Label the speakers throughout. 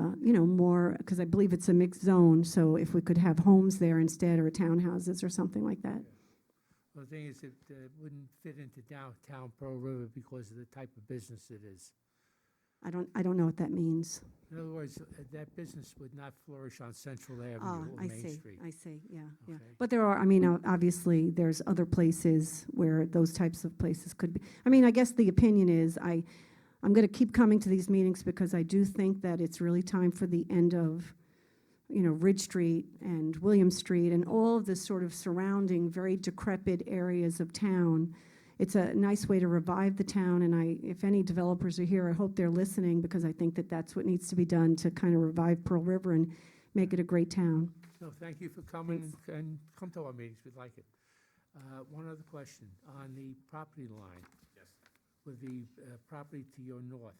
Speaker 1: uh, you know, more, because I believe it's a mixed zone, so if we could have homes there instead, or townhouses or something like that.
Speaker 2: Well, the thing is, it uh, wouldn't fit into downtown Pearl River because of the type of business it is.
Speaker 1: I don't, I don't know what that means.
Speaker 2: In other words, uh, that business would not flourish on Central
Speaker 1: Ah,
Speaker 2: Avenue or
Speaker 1: I
Speaker 2: Main
Speaker 1: see,
Speaker 2: Street.
Speaker 1: I see, yeah, yeah.
Speaker 2: Okay.
Speaker 1: But there are, I mean, o- obviously, there's other places where those types of places could be. I mean, I guess the opinion is, I, I'm going to keep coming to these meetings because I do think that it's really time for the end of, you know, Ridge Street and William Street and all of the sort of surrounding, very decrepit areas of town. It's a nice way to revive the town, and I, if any developers are here, I hope they're listening because I think that that's what needs to be done to kind of revive Pearl River and make it a great town.
Speaker 2: No, thank you for coming and- and come to our meetings, we'd like it. Uh, One other question, on the property line.
Speaker 3: Yes.
Speaker 2: With the uh, property to your north.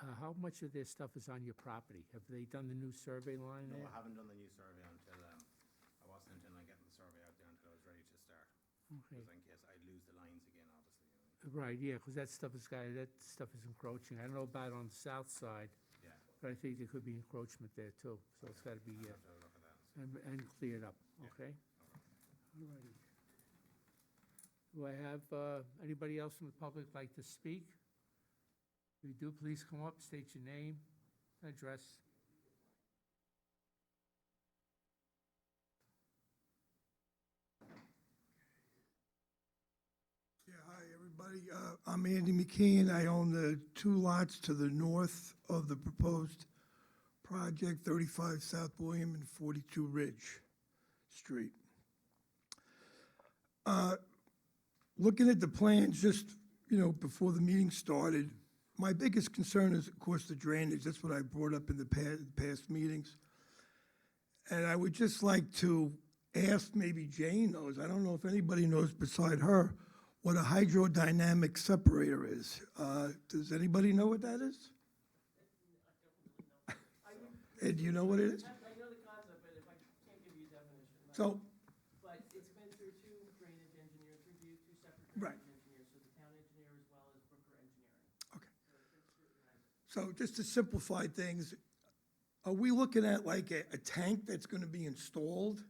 Speaker 2: Uh, How much of their stuff is on your property? Have they done the new survey line
Speaker 3: No, I
Speaker 2: there?
Speaker 3: haven't done the new survey until, um, I wasn't intending on getting the survey out there until I was ready to start.
Speaker 2: Okay.
Speaker 3: Because in case I lose the lines again, obviously. you know.
Speaker 2: Right, yeah, because that stuff is, got- that stuff is encroaching. I don't know about on the south side,
Speaker 3: Yeah,
Speaker 2: but I think there could be encroachment there too, so it's got to be, uh,
Speaker 3: I'll have to look at that.
Speaker 2: and, and cleared up, okay? All righty. Do I have, uh, anybody else from the public like to speak? If you do, please come up, state your name, address.
Speaker 4: Yeah, hi, everybody. Uh, I'm Andy McKeon. I own the two lots to the north of the proposed project, 35 South William and 42 Ridge Street. Uh, Looking at the plans just, you know, before the meeting started, my biggest concern is, of course, the drainage. That's what I brought up in the pa- past meetings. And I would just like to ask, maybe Jane knows, I don't know if anybody knows beside her, what a hydrodynamic separator is. Uh, Does anybody know what that is? Ed, do you know what it is?
Speaker 5: I I know the concept, but if I can't give you a definition, but-
Speaker 4: So,
Speaker 5: but it's been through two drainage engineers, review two separate
Speaker 4: Right.
Speaker 5: drainage engineers, so the town engineer as well as Brooker Engineering.
Speaker 4: so just to simplify things, are we looking at like a, a tank that's gonna be installed?
Speaker 5: Do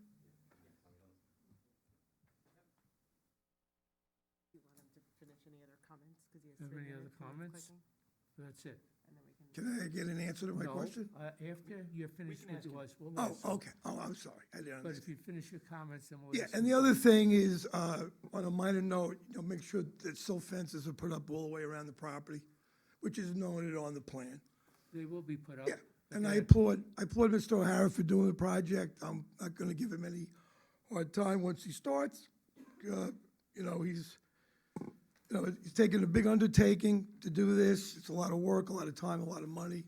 Speaker 5: you want him to finish any other comments, because he has
Speaker 2: Have any other comments? That's it.
Speaker 5: and then we can.
Speaker 4: Can I get an answer to my
Speaker 2: No,
Speaker 4: question?
Speaker 2: uh, After you're finished with yours, we'll
Speaker 4: Oh,
Speaker 2: ask.
Speaker 4: okay, oh, I'm sorry, I didn't
Speaker 2: But
Speaker 4: understand.
Speaker 2: if you finish your comments, then we'll.
Speaker 4: Yeah,
Speaker 2: listen.
Speaker 4: and the other thing is, uh, on a minor note, you know, make sure that silt fences are put up all the way around the property, which is noted on the plan.
Speaker 2: They will be put up.
Speaker 4: Yeah,
Speaker 2: but
Speaker 4: and I
Speaker 2: they're-
Speaker 4: applaud, I applaud Mr. O'Hara for doing the project. I'm not gonna give him any hard time once he starts. Uh, You know, he's, you know, he's taking a big undertaking to do this. It's a lot of work, a lot of time, a lot of money.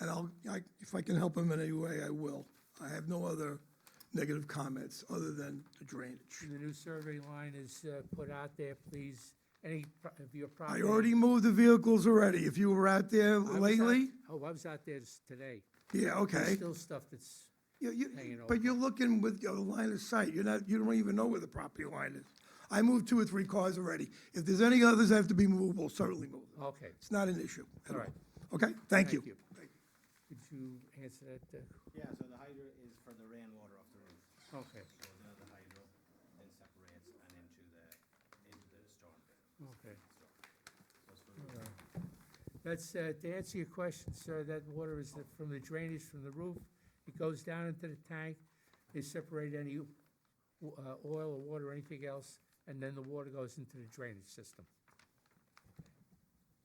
Speaker 4: And I'll, I, if I can help him in any way, I will. I have no other negative comments other than the drainage.
Speaker 2: and The new survey line is uh, put out there, please, any pro- of your
Speaker 4: I
Speaker 2: property.
Speaker 4: already moved the vehicles already. If you were out there
Speaker 2: I was out-
Speaker 4: lately,
Speaker 2: Oh, I was out there s- today.
Speaker 4: yeah,
Speaker 2: There's
Speaker 4: okay.
Speaker 2: still stuff that's
Speaker 4: You- you-
Speaker 2: hanging over.
Speaker 4: But you're looking with your line of sight, you're not, you don't even know where the property line is. I moved two or three cars already. If there's any others that have to be moved, we'll certainly move them.
Speaker 2: Okay,
Speaker 4: It's not an issue at
Speaker 2: All
Speaker 4: all.
Speaker 2: right.
Speaker 4: Okay, thank you.
Speaker 2: Thank you. Could you answer that? uh,
Speaker 3: Yeah, so the hydro is for the rainwater off the roof.
Speaker 2: Okay,
Speaker 3: It Goes into the hydro, then separates and into the, into the storm. drain.
Speaker 2: okay.
Speaker 3: So it's for-
Speaker 2: That's, uh, to answer your question, sir, that water is the- from the drainage from the roof. It goes down into the tank. They separate any uh, oil or water or anything else, and then the water goes into the drainage system.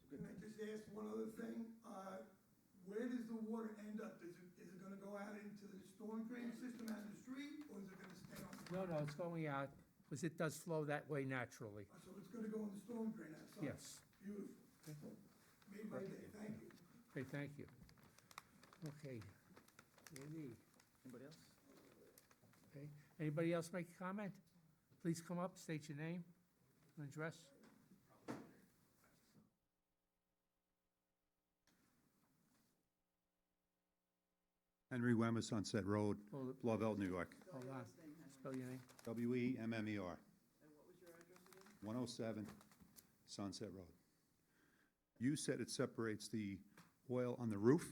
Speaker 4: Can I just ask one other thing? Uh, Where does the water end up? Is it, is it gonna go out into the storm drain system out of the street, or is it gonna stay on?
Speaker 2: No, no, it's going out, because it does flow that way naturally.
Speaker 4: So it's gonna go in the storm drain outside?
Speaker 2: Yes.
Speaker 4: Beautiful. Made my day, thank you.
Speaker 2: Okay, thank you. Okay. Andy,
Speaker 3: Anybody else?
Speaker 2: okay. Anybody else make a comment? Please come up, state your name and address.
Speaker 6: Henry Wemmer, Sunset Road,
Speaker 2: Hold it-
Speaker 6: Lovell, New York.
Speaker 2: hold on. Spell your name.
Speaker 6: W E M M E R. oh And what was your address again? 107 Sunset Road. You said it separates the oil on the roof?